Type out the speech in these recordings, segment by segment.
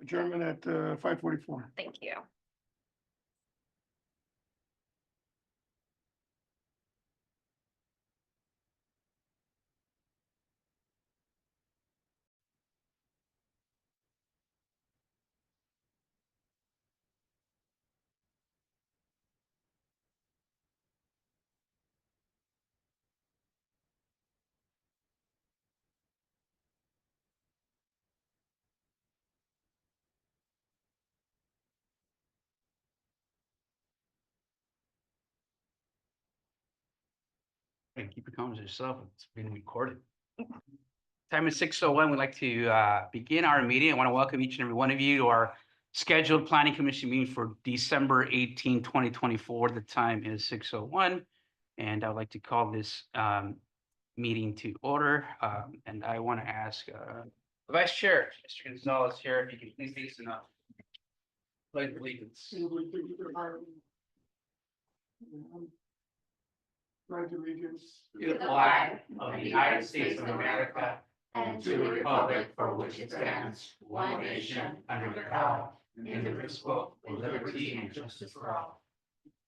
adjournment at uh five forty-four. Thank you. And keep your comments to yourself. It's being recorded. Time is six oh one. We'd like to uh, begin our meeting. I want to welcome each and every one of you to our scheduled planning commission meeting for December 18, 2024. The time is six oh one. And I'd like to call this um, meeting to order. Um, And I want to ask uh, Vice Chair, Mr. Gonzalez here, if you can please face enough. Pledge of allegiance. Right to regions. To the flag of the United States of America and to the republic for which it stands, one nation, under God, indivisible, with liberty and justice for all.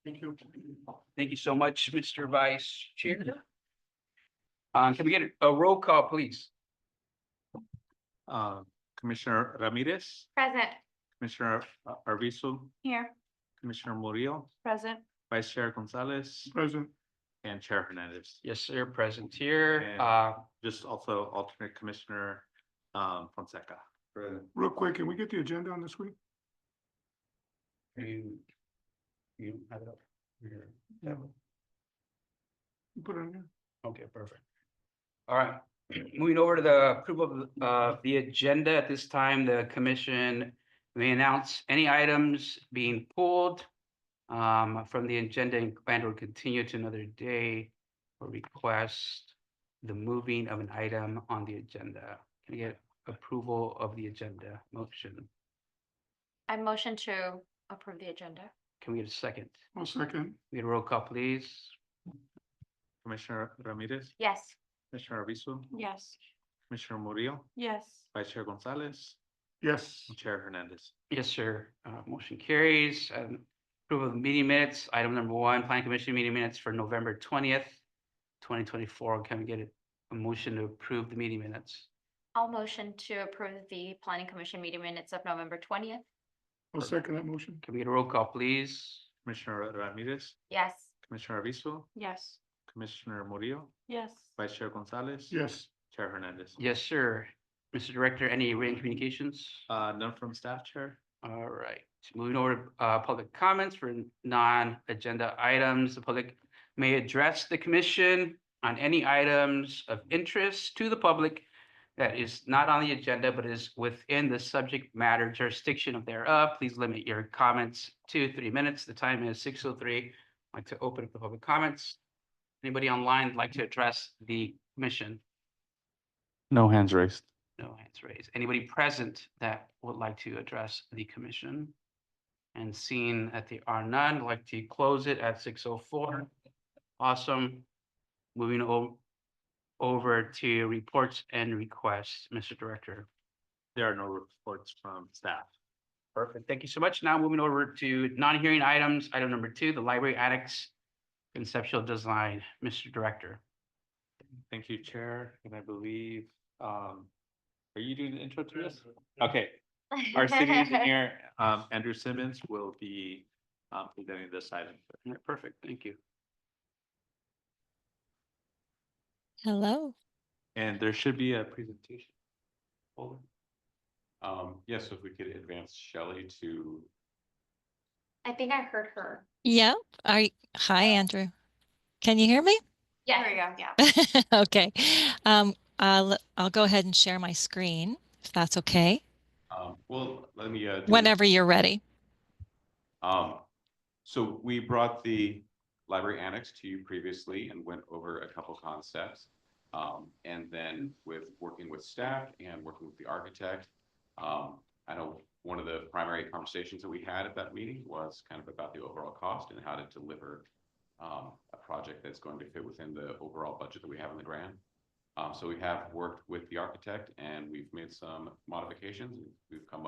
Thank you. Thank you so much, Mr. Vice Chair. Uh, can we get a roll call, please? Uh, Commissioner Ramirez, Present. Commissioner Ar- Arvizu, Here. Commissioner Murillo, Present. Vice Chair Gonzalez, Present, and Chair Hernandez. Yes, sir, present here. And- Uh, Just also alternate Commissioner um, Fonseca. real quick, can we get the agenda on this week? you, you have it up here. You Put it on here. Okay, perfect. All right, moving over to the approval of the- uh, the agenda. At this time, the commission may announce any items being pulled um, from the agenda and plan to continue to another day or request the moving of an item on the agenda. Can I get approval of the agenda motion? I motion to approve the agenda. Can we get a second? One second. We get a roll call, please. Commissioner Ramirez, Yes. Commissioner Arvizu, Yes. Commissioner Murillo, Yes. Vice Chair Gonzalez, Yes, and Chair Hernandez. Yes, sir. Uh, motion carries. Um, approval of meeting minutes, item number one, planning commission meeting minutes for November twentieth, twenty twenty-four. Can we get a- a motion to approve the meeting minutes? I'll motion to approve the planning commission meeting minutes of November twentieth. I'll second that motion. Can we get a roll call, please? Commissioner Ramirez, Yes. Commissioner Arvizu, Yes. Commissioner Murillo, Yes. Vice Chair Gonzalez. Yes, Chair Hernandez. Yes, sir. Mr. Director, any written communications? Uh, none from staff, Chair. All right, moving over to uh, public comments for non-agenda items. The public may address the commission on any items of interest to the public that is not on the agenda but is within the subject matter jurisdiction of thereof. Please limit your comments to three minutes. The time is six oh three. I'd like to open up the public comments. Anybody online like to address the commission? No hands raised. No hands raised. Anybody present that would like to address the commission? And seeing that there are none, I'd like to close it at six oh four. Awesome. Moving o- over to reports and requests, Mr. Director. There are no reports from staff. Perfect. Thank you so much. Now moving over to non-hearing items, item number two, the library annex conceptual design, Mr. Director. Thank you, Chair, and I believe, um, are you doing the intro to this? Okay, our city engineer, um, Andrew Simmons will be, um, presenting this item. Yeah, Perfect. Thank you. Hello. And there should be a presentation. Over. Um, yes, if we could advance Shelley to, I think I heard her. Yep. Are you, hi, Andrew. Can you hear me? Yeah. There we go. Yeah. Okay. Um, I'll, I'll go ahead and share my screen if that's okay, um, well, let me. uh, do- whenever you're ready. Um, so we brought the library annex to you previously and went over a couple concepts. Um, and then with working with staff and working with the architect, um, I know one of the primary conversations that we had at that meeting was kind of about the overall cost and how to deliver um, a project that's going to fit within the overall budget that we have in the grant. Um, so we have worked with the architect and we've made some modifications. We've come up.